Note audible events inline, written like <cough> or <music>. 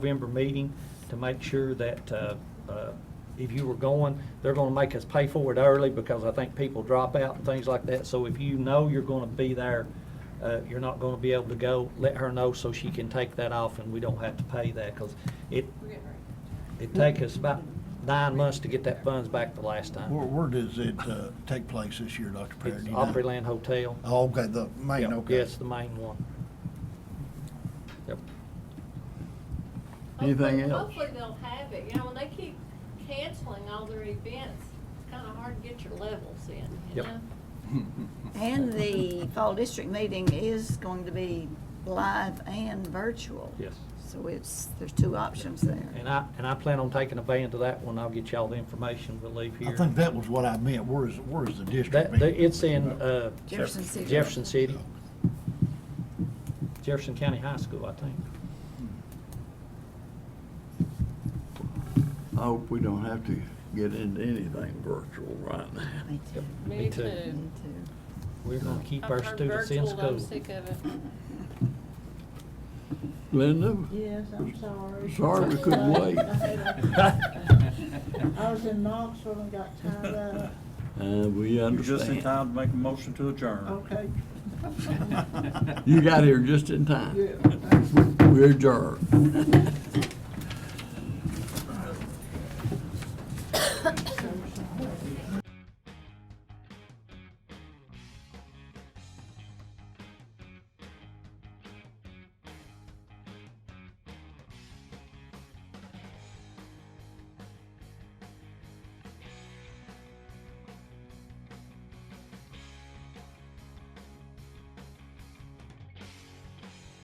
November meeting to make sure that uh, uh, if you were going, they're going to make us pay for it early because I think people drop out and things like that. So if you know you're going to be there, uh, you're not going to be able to go, let her know so she can take that off and we don't have to pay that because it, it take us about nine months to get that funds back the last Where, time. where does it uh, take place this year, Dr. Perry? It's Do you know? Opryland Hotel. Oh, okay, the main, Yep, okay. Yes, the main one. Yep. Anything Hopefully- else? Hopefully they'll have it, you know, when they keep canceling all their events, it's kinda hard to get your levels in, you Yep. know? And the fall district meeting is going to be live and virtual. Yes. So it's, there's two options there. And I, and I plan on taking a van to that one. I'll get y'all the information. We'll leave here. I think that was what I meant. Where is, where is the district That, that- meeting? it's in, uh. Jefferson City. Jefferson City. Jefferson County High School, I think. Oh. I hope we don't have to get into anything virtual right now. Me too. Me too. Me too. too. We're gonna keep I've our heard students in virtual, I'm school. sick of it. Linda? Yes, I'm sorry. Sorry we <laughs> couldn't wait. <laughs> <laughs> I was in Knoxville and got tied up. Uh, we You're just in understand. time to make a motion to adjourn. Okay. You got here just in time. Yeah. We're adjourned.